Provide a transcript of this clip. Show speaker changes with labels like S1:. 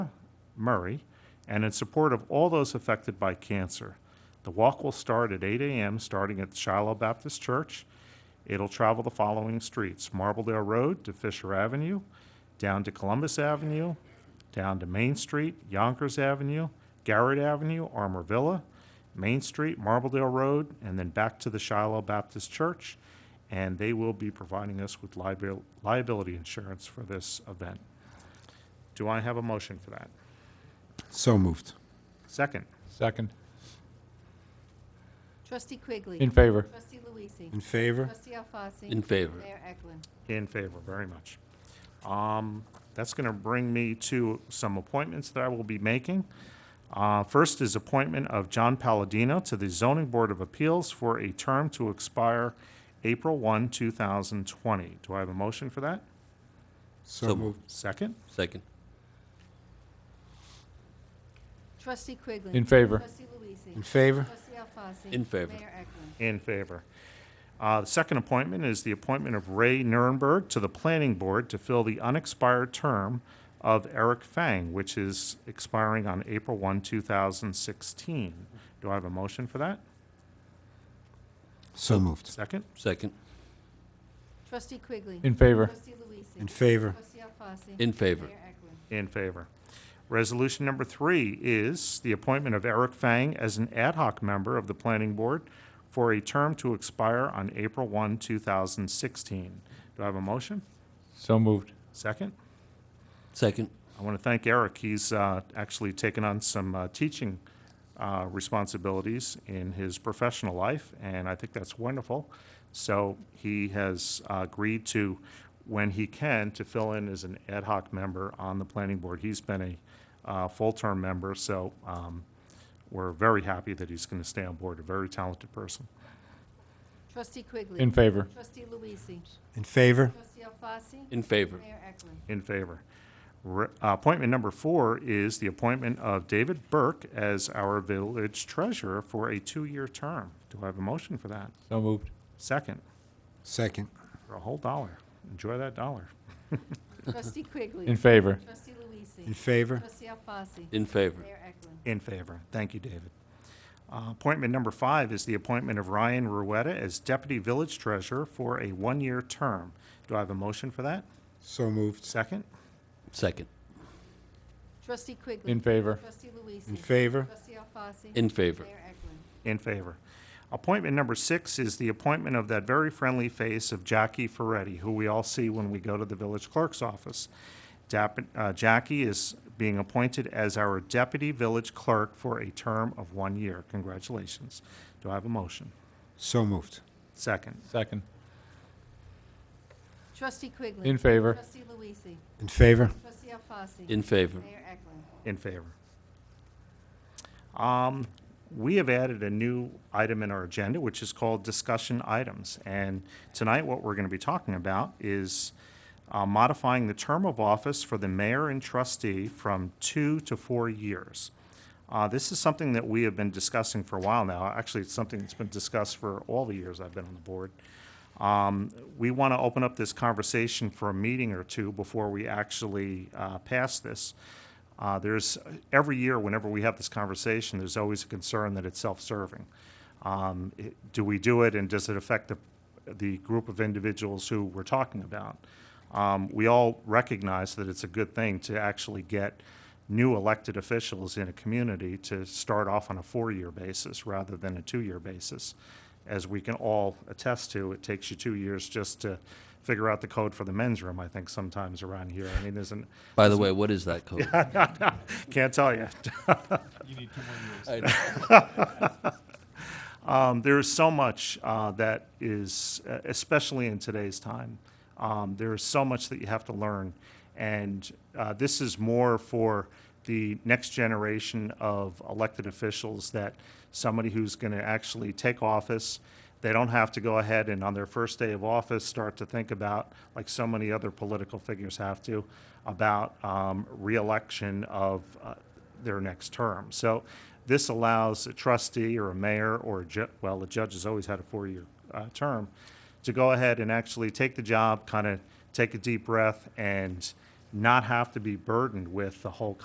S1: Murray, and in support of all those affected by cancer. The walk will start at 8 a.m., starting at Shiloh Baptist Church. It'll travel the following streets: Marbledale Road to Fisher Avenue, down to Columbus Avenue, down to Main Street, Yonkers Avenue, Garrett Avenue, Armour Villa, Main Street, Marbledale Road, and then back to the Shiloh Baptist Church. And they will be providing us with liabil- liability insurance for this event. Do I have a motion for that?
S2: So moved.
S1: Second,
S3: Second.
S4: Trustee Quigley.
S3: In favor.
S4: Trustee Luisee.
S2: In favor?
S4: Trustee Alfasi.
S5: In favor.
S4: Mayor Eklund.
S1: in favor, very much. Um, That's going to bring me to some appointments that I will be making. Uh, First is appointment of John Palladino to the Zoning Board of Appeals for a term to expire April 1, 2020. Do I have a motion for that?
S2: So
S5: So
S2: moved.
S1: Second,
S5: Second.
S4: Trustee Quigley.
S3: In favor.
S4: Trustee Luisee.
S2: In favor?
S4: Trustee Alfasi.
S5: In favor.
S4: Mayor Eklund.
S1: in favor. Uh, The second appointment is the appointment of Ray Nuremberg to the Planning Board to fill the unexpired term of Eric Fang, which is expiring on April 1, 2016. Do I have a motion for that?
S2: So moved.
S1: Second,
S5: Second.
S4: Trustee Quigley.
S3: In favor.
S4: Trustee Luisee.
S2: In favor?
S4: Trustee Alfasi.
S5: In favor.
S4: Mayor Eklund.
S1: in favor. Resolution number three is the appointment of Eric Fang as an ad hoc member of the Planning Board for a term to expire on April 1, 2016. Do I have a motion?
S3: So moved.
S1: Second?
S5: Second.
S1: I want to thank Eric. He's uh, actually taken on some uh, teaching uh, responsibilities in his professional life, and I think that's wonderful. So he has uh, agreed to, when he can, to fill in as an ad hoc member on the planning board. He's been a uh, full-term member, so um, we're very happy that he's going to stay on board, a very talented person.
S4: Trustee Quigley.
S3: In favor.
S4: Trustee Luisee.
S2: In favor?
S4: Trustee Alfasi.
S5: In favor.
S4: Mayor Eklund.
S1: In favor. Re- uh, Appointment number four is the appointment of David Burke as our village treasurer for a two-year term. Do I have a motion for that?
S3: So moved.
S1: Second,
S2: Second.
S1: for a whole dollar. Enjoy that dollar.
S4: Trustee Quigley.
S3: In favor.
S4: Trustee
S2: In
S4: Luisee.
S2: favor?
S4: Trustee Alfasi.
S5: In favor.
S4: Mayor Eklund.
S1: In favor. Thank you, David. Uh, Appointment number five is the appointment of Ryan Ruetta as deputy village treasurer for a one-year term. Do I have a motion for that?
S2: So moved.
S1: Second,
S5: Second.
S4: Trustee Quigley.
S3: In favor.
S4: Trustee Luisee.
S2: In favor?
S4: Trustee Alfasi.
S5: In favor.
S4: Mayor Eklund.
S1: in favor. Appointment number six is the appointment of that very friendly face of Jackie Ferretti, who we all see when we go to the village clerk's office. Dap- uh, Jackie is being appointed as our deputy village clerk for a term of one year. Congratulations. Do I have a motion?
S2: So moved.
S1: Second.
S3: Second.
S4: Trustee Quigley.
S3: In favor.
S4: Trustee Luisee.
S2: In favor?
S4: Trustee Alfasi.
S5: In favor.
S4: Mayor Eklund.
S1: In favor. Um, We have added a new item in our agenda, which is called discussion items. And tonight, what we're going to be talking about is uh, modifying the term of office for the mayor and trustee from two to four years. Uh, This is something that we have been discussing for a while now. Actually, it's something that's been discussed for all the years I've been on the board. Um, We want to open up this conversation for a meeting or two before we actually uh, pass this. Uh, There's, every year, whenever we have this conversation, there's always a concern that it's self-serving. Um, it- Do we do it, and does it affect the, the group of individuals who we're talking about? Um, We all recognize that it's a good thing to actually get new elected officials in a community to start off on a four-year basis rather than a two-year basis. As we can all attest to, it takes you two years just to figure out the code for the men's room, I think, sometimes around here. I mean, there's an,
S5: By the way, what is that code?
S1: can't tell you.
S5: I know.
S1: Um, there is so much uh, that is, uh, especially in today's time, um, there is so much that you have to learn. And uh, this is more for the next generation of elected officials that somebody who's going to actually take office, they don't have to go ahead and on their first day of office start to think about, like so many other political figures have to, about um, reelection of uh, their next term. So this allows a trustee or a mayor or, a ju- well, the judge has always had a four-year uh, term, to go ahead and actually take the job, kind of take a deep breath, and not have to be burdened with the whole